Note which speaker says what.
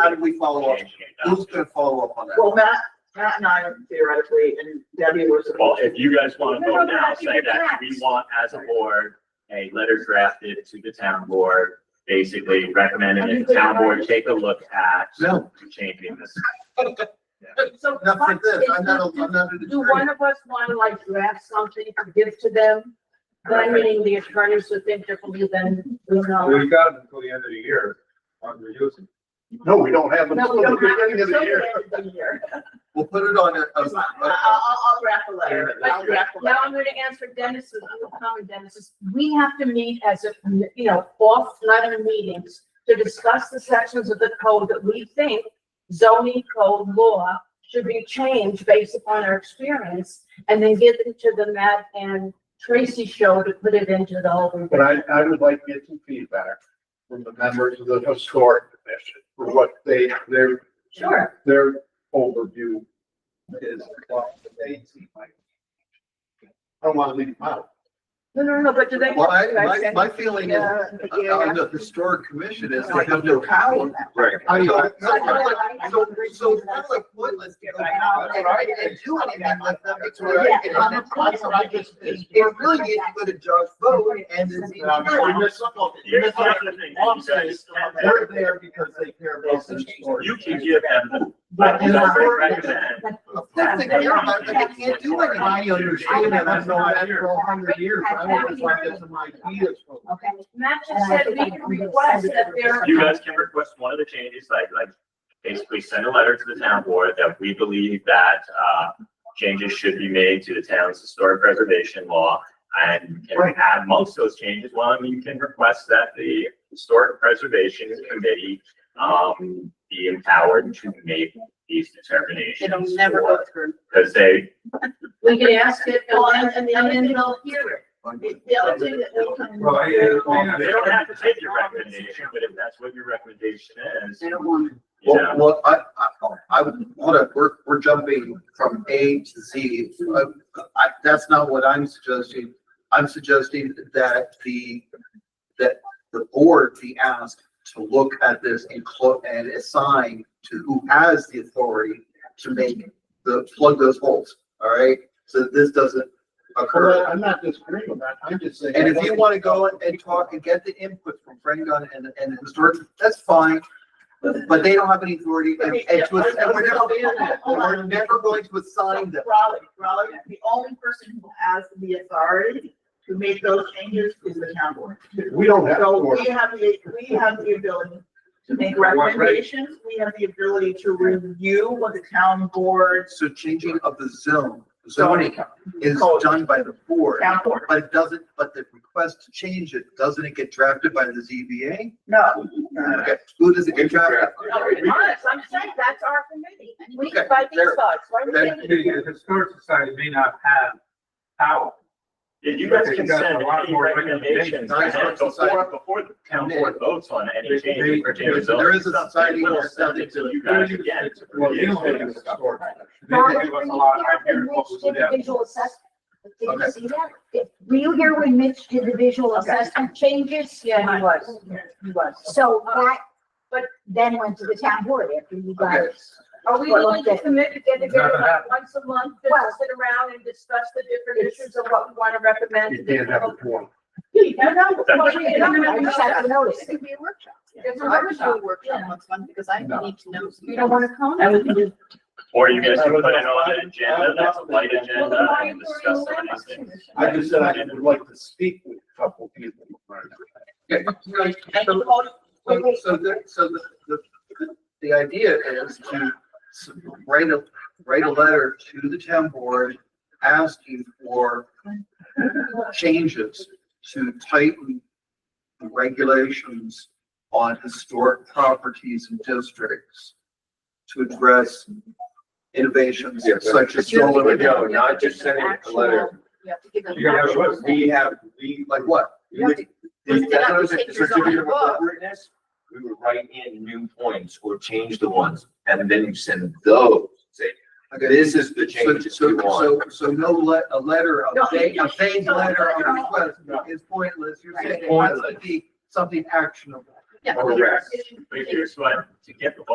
Speaker 1: How do we follow up? Who's gonna follow up on that?
Speaker 2: Well, Matt, Matt and I theoretically, and Debbie were
Speaker 3: Well,
Speaker 2: supposed to.
Speaker 3: if you guys want to
Speaker 4: No, no,
Speaker 3: vote now,
Speaker 4: that's
Speaker 3: say that we
Speaker 4: correct.
Speaker 3: want as a board, a letter drafted to the town board, basically recommending that the town board take a look at
Speaker 1: No,
Speaker 3: changing this.
Speaker 4: So
Speaker 1: not for
Speaker 4: what
Speaker 1: this.
Speaker 4: is-
Speaker 1: I'm not, a- I'm not an
Speaker 4: Do
Speaker 1: attorney.
Speaker 4: one of us want to like draft something to give to them? Then meaning the attorneys would think differently than we know.
Speaker 5: We've got until the end of the year on reusing.
Speaker 1: No, we don't have.
Speaker 4: No, we don't have
Speaker 1: Beginning of the
Speaker 4: until the
Speaker 1: year.
Speaker 4: end of the year.
Speaker 1: We'll put it on a, a-
Speaker 2: I'll,
Speaker 1: a-
Speaker 2: I'll, I'll draft a letter. I'll draft a
Speaker 4: Now
Speaker 2: letter.
Speaker 4: I'm gonna answer Dennis's, I'm gonna comment Dennis's. We have to meet as if, you know, off letter meetings to discuss the sections of the code that we think zoning code law should be changed based upon our experience and then give it to the Matt and Tracy show to put it into the whole.
Speaker 6: But I, I would like to get some feedback from the members of the historic commission for what they, their,
Speaker 4: Sure.
Speaker 6: their overview is. what they see like. I don't want to leave them out.
Speaker 4: No, no, no, but do they?
Speaker 1: well, I, my, my feeling is,
Speaker 2: Uh,
Speaker 1: on the historic commission is they have no power.
Speaker 3: Right.
Speaker 1: I
Speaker 6: I-
Speaker 1: mean,
Speaker 6: I-
Speaker 1: so, so, so it's not like pointless to go out and, and do anything like that. It's all right. And I'm- I'm- I'm just- It really needs to go to Josh vote and it's.
Speaker 6: We missed something. We
Speaker 3: Here's
Speaker 6: missed
Speaker 3: the
Speaker 6: something.
Speaker 3: other thing,
Speaker 6: All I'm
Speaker 3: you
Speaker 6: saying is
Speaker 3: guys,
Speaker 6: They're there because they care about the historic.
Speaker 3: you can give them,
Speaker 1: But
Speaker 3: the
Speaker 1: in
Speaker 3: letter
Speaker 1: our-
Speaker 3: recommend,
Speaker 1: Of course they care about, it, but they can't do anything.
Speaker 6: I understand that. I've known that for a hundred years. I always like this in my ideas.
Speaker 4: Okay, Matt just said we can request that there.
Speaker 3: you guys can request one of the changes, like, like basically send a letter to the town board that we believe that, uh, changes should be made to the town's historic preservation law. And you can add amongst those changes, one, you can request that the historic preservation committee, um, be empowered to make these determinations.
Speaker 7: It'll never go through.
Speaker 3: Because they,
Speaker 4: We can ask it,
Speaker 2: Well,
Speaker 4: and
Speaker 2: and- and
Speaker 4: then, and then
Speaker 2: then
Speaker 4: they'll hear
Speaker 2: The the other thing that we can.
Speaker 5: Well, I- I-
Speaker 3: they don't have to take your recommendation, but if that's what your recommendation is,
Speaker 7: They
Speaker 3: you
Speaker 7: don't want
Speaker 3: know.
Speaker 1: Well, well, I, I, I would wanna, we're, we're jumping from A to Z. Uh, I, that's not what I'm suggesting. I'm suggesting that the, that the board be asked to look at this and clo, and assign to who has the authority to make the, plug those holes, all right? So that this doesn't occur.
Speaker 6: I'm not disagreeing with that. I'm just saying.
Speaker 1: And if you want to go and- and talk and get the input from Frank Gunn and, and the historic, that's fine. But they don't have any authority and, and to, and we're never, and we're never going to assign them.
Speaker 2: Raleigh, Raleigh, the only person who has the authority to make those changes is the town board.
Speaker 6: We don't have.
Speaker 2: So
Speaker 6: to.
Speaker 2: we have the, we have the ability to make
Speaker 5: Right.
Speaker 2: recommendations, we have the ability to review what the town board,
Speaker 1: So changing of the zone, zoning is done by the board,
Speaker 2: town board.
Speaker 1: but it doesn't, but the request to change it, doesn't it get drafted by the ZBA?
Speaker 2: No,
Speaker 1: Okay, who does it get drafted?
Speaker 4: No, it's honest, I'm saying that's our committee, and we can buy these
Speaker 1: Okay, there.
Speaker 4: thoughts, why we
Speaker 1: Then-
Speaker 4: can't-
Speaker 5: The historic society may not have power.
Speaker 3: Yeah, you guys can
Speaker 5: They've got a
Speaker 3: send
Speaker 5: lot
Speaker 3: any
Speaker 5: more
Speaker 3: recommendations
Speaker 5: recommendations.
Speaker 3: before, before the town board votes on any
Speaker 5: They-
Speaker 3: change.
Speaker 5: they-
Speaker 3: or changes.
Speaker 1: there is a
Speaker 3: They will
Speaker 1: society that's
Speaker 3: send it to you guys again.
Speaker 6: Well, you
Speaker 5: They
Speaker 6: don't have
Speaker 5: give
Speaker 6: a historic.
Speaker 5: us a lot of ideas what we should have.
Speaker 8: Individual assessment. Did
Speaker 1: Okay.
Speaker 8: you see that? Did- Were you here when Mitch did the visual assessment changes?
Speaker 4: Yeah, he was, he was.
Speaker 8: So that, but then went to the town board after you guys.
Speaker 1: Okay.
Speaker 4: Are we willing to commit to get together like once a month, to
Speaker 8: Well-
Speaker 4: sit around and discuss the different issues of what we want to recommend?
Speaker 6: You can't have a one.
Speaker 4: No, no, well, we- no, no,
Speaker 8: I just have to
Speaker 4: no.
Speaker 8: notice.
Speaker 7: to be a workshop.
Speaker 4: It's a
Speaker 7: I would do
Speaker 4: workshop.
Speaker 7: a workshop once one because I
Speaker 6: No.
Speaker 7: need to know. some
Speaker 8: You don't want to come?
Speaker 7: I would do
Speaker 3: Or you guys can put it on an agenda, that's a light
Speaker 4: Well, then
Speaker 3: agenda, and
Speaker 4: why are you
Speaker 3: discuss some of
Speaker 4: allowed
Speaker 3: these things.
Speaker 4: to?
Speaker 6: I just said I would like to speak with a couple people.
Speaker 1: So, so- so the, so the, the, the idea is to s- write a, write a letter to the town board asking for changes to tighten the regulations on historic properties and districts to address innovations
Speaker 5: Yeah, but-
Speaker 1: such as
Speaker 7: You have to
Speaker 1: solar.
Speaker 7: give them-
Speaker 1: and-
Speaker 5: not just sending a letter.
Speaker 7: You have to give them.
Speaker 5: You gotta have a list.
Speaker 7: We
Speaker 5: We have, we,
Speaker 1: Like what?
Speaker 7: You have to-
Speaker 5: we
Speaker 7: It's not
Speaker 5: would
Speaker 7: just take your zoning book.
Speaker 5: write in new points or change the ones, and then you send those, say,
Speaker 1: Okay.
Speaker 5: this is the
Speaker 1: So,
Speaker 5: changes
Speaker 1: so,
Speaker 5: we want.
Speaker 1: so, so no le, a letter,
Speaker 2: No,
Speaker 1: a vague, a
Speaker 2: no,
Speaker 1: vague
Speaker 2: no,
Speaker 1: letter of
Speaker 2: no.
Speaker 1: request is pointless. You're
Speaker 7: Right.
Speaker 1: saying it has to be something actionable.
Speaker 7: Yeah.
Speaker 5: Correct.
Speaker 3: But here's what, to get the ball